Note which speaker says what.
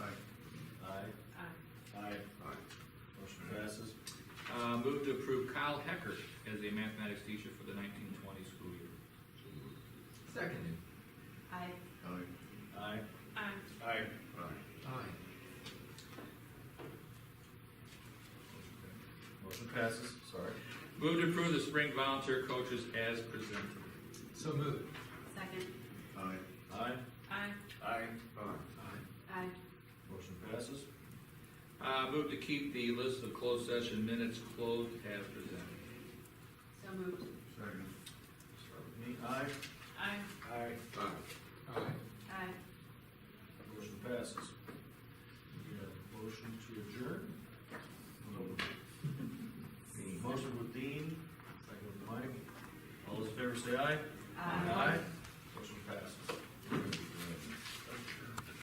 Speaker 1: Uh, Hal Hecker as a mathematics teacher for the nineteen twenty school year.
Speaker 2: Seconded.
Speaker 3: I,
Speaker 4: Aye.
Speaker 5: Aye.
Speaker 6: Aye.
Speaker 5: Aye.
Speaker 4: Aye.
Speaker 2: Aye.
Speaker 1: Motion passes.
Speaker 4: Sorry.
Speaker 1: Move to approve the spring volunteer coaches as presented.
Speaker 2: So moved.
Speaker 3: second,
Speaker 4: Aye.
Speaker 5: Aye.
Speaker 6: Aye.
Speaker 5: Aye.
Speaker 4: Aye.
Speaker 2: Aye.
Speaker 3: I,
Speaker 5: Motion passes.
Speaker 1: Uh, move to keep the list of closed session minutes closed as presented.
Speaker 3: so moved,
Speaker 4: Second.
Speaker 5: Start with me. Aye.
Speaker 6: Aye.
Speaker 5: Aye.
Speaker 4: Aye.
Speaker 2: Aye.
Speaker 3: I,
Speaker 5: Motion passes. We have a motion to adjourn. Motion with Dean, second with Mike. All those in favor say aye.
Speaker 3: I.
Speaker 5: Aye.